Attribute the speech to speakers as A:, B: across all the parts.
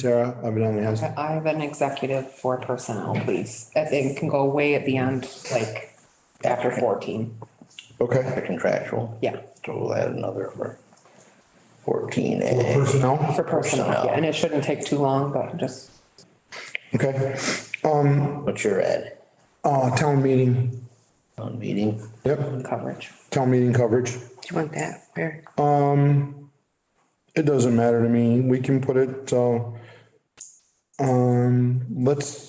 A: Tara evidently has,
B: Uh-huh.
C: I have an executive for personnel, please. That it can go way at the end, like after fourteen.
A: okay,
D: The contractual.
C: Yeah,
D: So we'll add another for fourteen
A: For
D: A.
A: personnel,
C: for personnel. Yeah, And it shouldn't take too long, but just,
A: okay.
D: What's your ad?
A: Uh, town meeting,
D: On meeting?
A: yep,
C: coverage.
A: town meeting coverage. Um,
B: Do you want that? Where?
A: It doesn't matter to me. We can put it, uh, um, let's,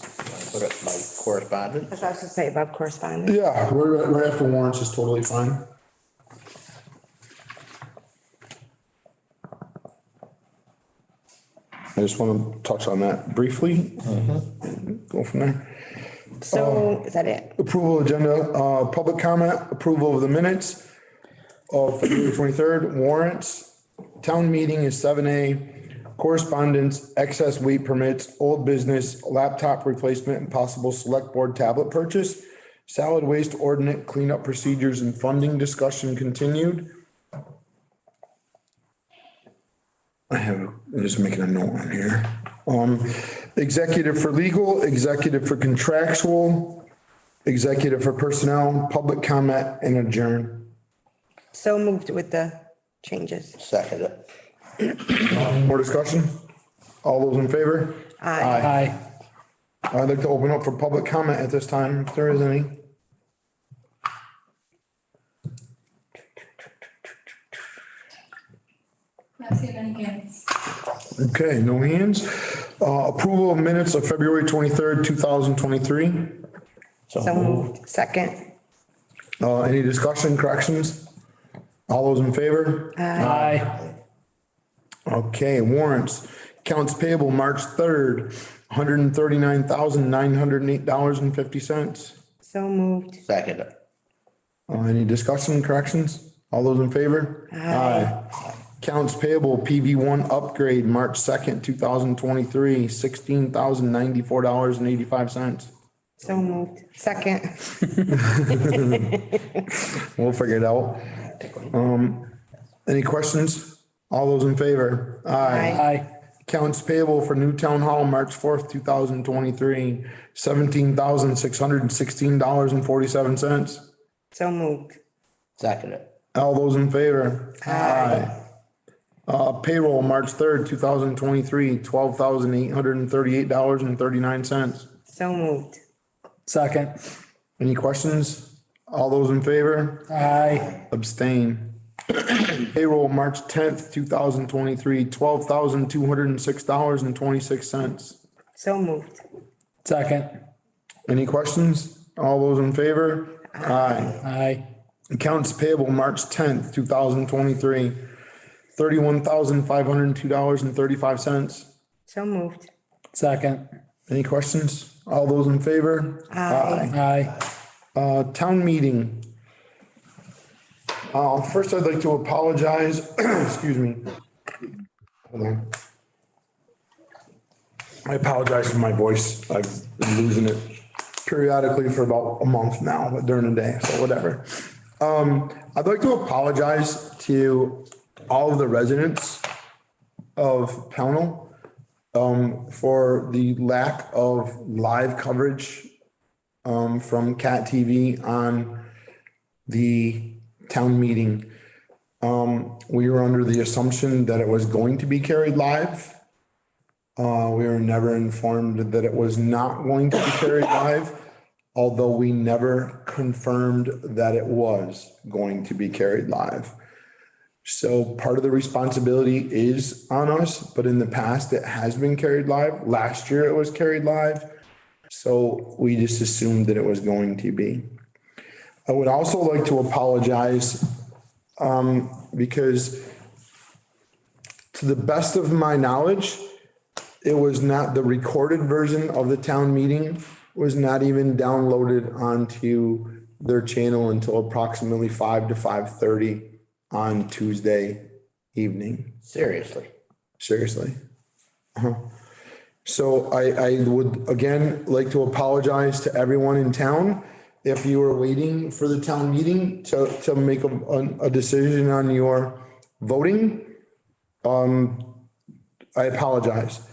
D: Put up my correspondence.
B: As I was gonna say above correspondence.
A: yeah, right, right after warrants is totally fine. I just want to touch on that briefly. Go from there.
B: So is that it?
A: Approval agenda, uh, public comment, approval of the minutes of February twenty-third, warrants, town meeting is seven A, correspondence, excess weight permits, old business, laptop replacement and possible select board tablet purchase, solid waste ordinance cleanup procedures and funding discussion continued. I have, I'm just making a note on here. Um, executive for legal, executive for contractual, executive for personnel, public comment, and adjourn.
B: So moved with the changes.
D: Second it.
A: More discussion? All those in favor?
B: Aye.
A: I'd like to open up for public comment at this time, if there is any.
E: Not seeing any hands.
A: Okay, no hands. Uh, approval of minutes of February twenty-third, two thousand twenty-three.
B: So moved. Second.
A: Uh, any discussion, corrections? All those in favor?
F: Aye.
A: Okay, warrants. Accounts payable, March third, hundred and thirty-nine thousand, nine hundred and eight dollars and fifty cents.
B: So moved.
D: Second it.
A: Uh, any discussion, corrections? All those in favor? Aye. Accounts payable PV one upgrade, March second, two thousand twenty-three, sixteen thousand ninety-four dollars and eighty-five cents.
B: So moved. Second.
A: We'll figure it out. Um, any questions? All those in favor? Aye.
F: Aye.
A: Accounts payable for new town hall, March fourth, two thousand twenty-three, seventeen thousand six hundred and sixteen dollars and forty-seven cents.
B: So moved.
D: Second it.
A: All those in favor? Aye. Uh, payroll, March third, two thousand twenty-three, twelve thousand eight hundred and thirty-eight dollars and thirty-nine cents.
B: So moved.
F: Second.
A: Any questions? All those in favor?
F: Aye.
A: Abstain. Payroll, March tenth, two thousand twenty-three, twelve thousand two hundred and six dollars and twenty-six cents.
B: So moved.
F: Second.
A: Any questions? All those in favor? Aye.
F: Aye.
A: Accounts payable, March tenth, two thousand twenty-three, thirty-one thousand five hundred and two dollars and thirty-five cents.
B: So moved.
F: Second.
A: Any questions? All those in favor?
B: Aye.
F: Aye.
A: Uh, town meeting. Uh, first I'd like to apologize, excuse me. Hold on. I apologize for my voice. I've been losing it periodically for about a month now, but during the day, so whatever. Um, I'd like to apologize to all of the residents of Pownell um, for the lack of live coverage um, from Cat TV on the town meeting. Um, we were under the assumption that it was going to be carried live. Uh, we were never informed that it was not going to be carried live, although we never confirmed that it was going to be carried live. So part of the responsibility is on us, but in the past, it has been carried live. Last year, it was carried live. So we just assumed that it was going to be. I would also like to apologize um, because to the best of my knowledge, it was not, the recorded version of the town meeting was not even downloaded onto their channel until approximately five to five thirty on Tuesday evening.
D: Seriously.
A: Seriously. Uh-huh. So I, I would again like to apologize to everyone in town. If you were waiting for the town meeting to, to make a, a decision on your voting, um, I apologize.